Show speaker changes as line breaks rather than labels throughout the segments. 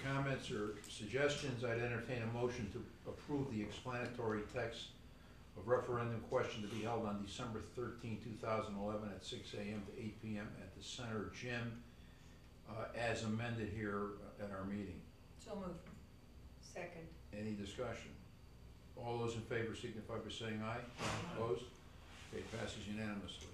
comments or suggestions, I'd entertain a motion to approve the explanatory text of referendum question to be held on December 13, thousand eleven, at six AM to eight PM at the Center Gym, uh, as amended here at our meeting.
So moved.
Second.
Any discussion? All those in favor signify by saying aye. Opposed? Okay, passes unanimously.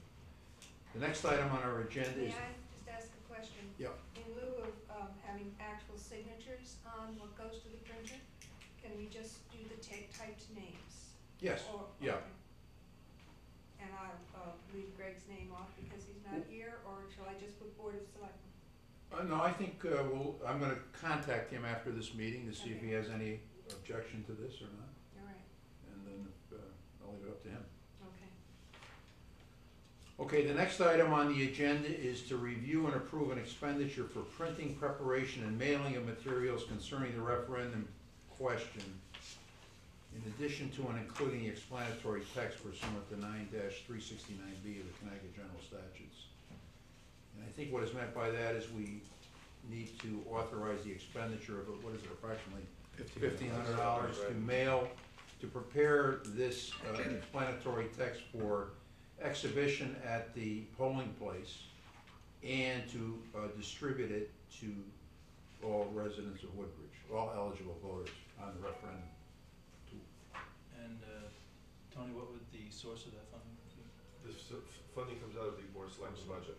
The next item on our agenda
May
is,
I just ask a question?
Yeah.
In lieu of um, having actual signatures on what goes to the printer, can we just do the ta- typed names?
yes,
Or-
yeah.
okay. And I'll uh, leave Greg's name off because he's not here, or shall I just put Board of Selectmen?
Uh, no, I think, uh, we'll, I'm gonna contact him after this meeting to see if he has any objection to this or not,
All right,
and then, uh, I'll leave it up to him.
okay.
Okay, the next item on the agenda is to review and approve an expenditure for printing, preparation, and mailing of materials concerning the referendum question, in addition to and including the explanatory text pursuant to nine three sixty-nine B of the Connecticut General Statutes. And I think what is meant by that is we need to authorize the expenditure of, what is it, approximately fifteen hundred dollars to mail, to prepare this uh, explanatory text for exhibition at the polling place and to uh, distribute it to all residents of Woodbridge, all eligible voters on the referendum.
And uh, Tony, what would the source of that funding be?
This f- f- funding comes out of the board of selectmen's budget.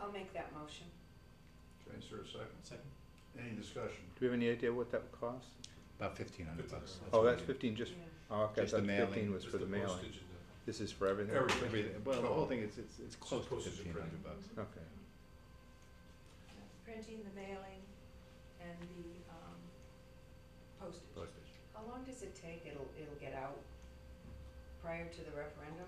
I'll make that motion.
Can I insert a second?
Second?
Any discussion?
Do we have any idea what that would cost?
About fifteen hundred bucks.
Fifteen
Oh,
what
that's
we
fifteen, just,
Yeah.
oh, okay, I
Just the
thought fifteen
mailing.
was
It's
for the mailing.
postage and the-
This is for everything?
Everything.
Everything- Well, the whole thing is, it's, it's close to
Postage and
fifteen hundred
printing.
bucks.
Okay.
Printing, the mailing, and the um, postage.
Postage.
How long does it take? It'll, it'll get out prior to the referendum?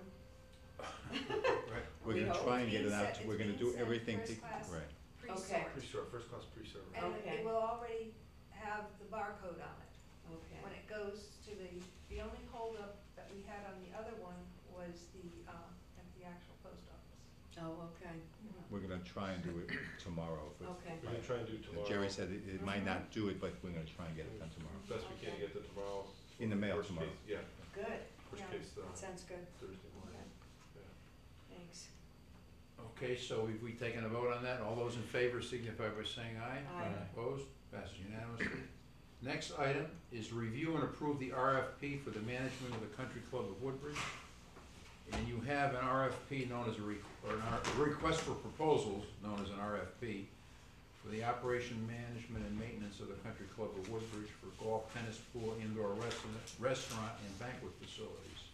Right.
We're
We
gonna
hope
try
it's
and get
being
it out,
sent-
to-
it's
we're gonna
being
do
sent
everything
first
to,
class.
right.
Pre-sort.
Pre-serve, first class pre-serve. right?
And
Okay.
it will already have the barcode on it. When
Okay.
it goes to the, the only holdup that we had on the other one was the, um, at the actual post office.
Oh, okay,
We're gonna try and do it tomorrow. but-
okay.
We're gonna try and do
And
tomorrow.
Jerry said it, it might
Mhm.
not do it, but we're gonna try and get it done tomorrow.
Best we can
Okay.
get to tomorrow.
In the mail
Worst
tomorrow.
case- Yeah,
Good.
worst
Yeah.
case, uh,
That sounds good.
Thursday morning.
Thanks.
Okay, so have we taken a vote on that? All those in favor signify by saying aye.
Aye. Aye.
Opposed? Passes unanimously. Next item is review and approve the RFP for the management of the Country Club of Woodbridge. And you have an RFP known as a, re- or an R- a request for proposals, known as an RFP, for the operation, management, and maintenance of the Country Club of Woodbridge for golf, tennis pool, indoor restaurant, restaurant, and banquet facilities.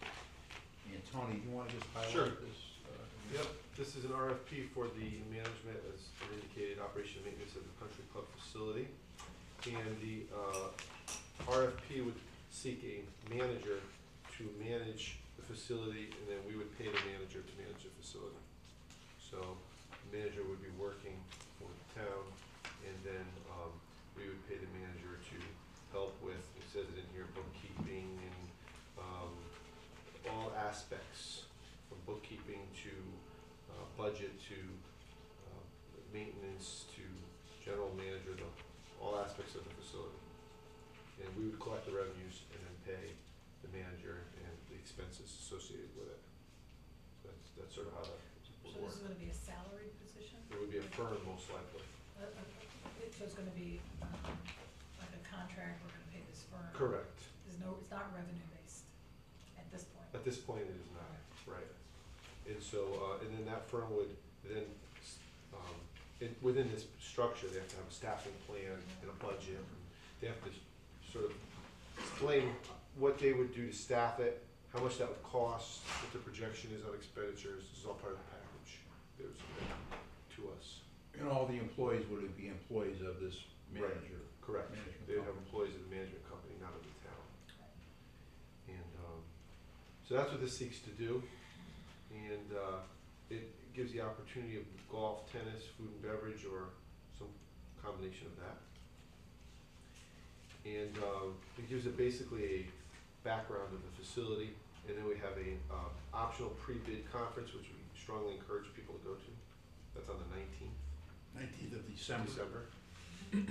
And Tony, you wanna just
Sure.
highlight this? uh,
Yep, this is an RFP for the management, as indicated, operation and maintenance of the country club facility. And the uh, RFP would seek a manager to manage the facility, and then we would pay the manager to manage the facility. So the manager would be working for the town, and then um, we would pay the manager to help with, it says it in here, bookkeeping and um, all aspects from bookkeeping to uh, budget to uh, maintenance to general manager, the, all aspects of the facility. And we would collect the revenues and then pay the manager and the expenses associated with it. So that's, that's sort of how that would
So this
work.
is gonna be a salaried position?
It would be a firm most likely.
Uh, uh, it- So it's gonna be um, like a contract, we're gonna pay this firm?
Correct.
There's no, it's not revenue based at this point?
At this point, it is not, right. And so, uh, and then that firm would then, s- um, it, within this structure, they have to have a staffing plan and a budget. They have to s- sort of explain what they would do to staff it, how much that would cost, what their projection is on expenditures. This is all part of the package. There's, uh, to us,
And all the employees would be employees of this manager.
correct.
Management
They have
company.
employees of the management company, not of the town. And um, so that's what this seeks to do. And uh, it gives the opportunity of golf, tennis, food and beverage, or some combination of that. And um, it gives it basically a background of the facility. And then we have a uh, optional pre-bid conference, which we strongly encourage people to go to. That's on the nineteenth
Nineteenth of
of
December.
December.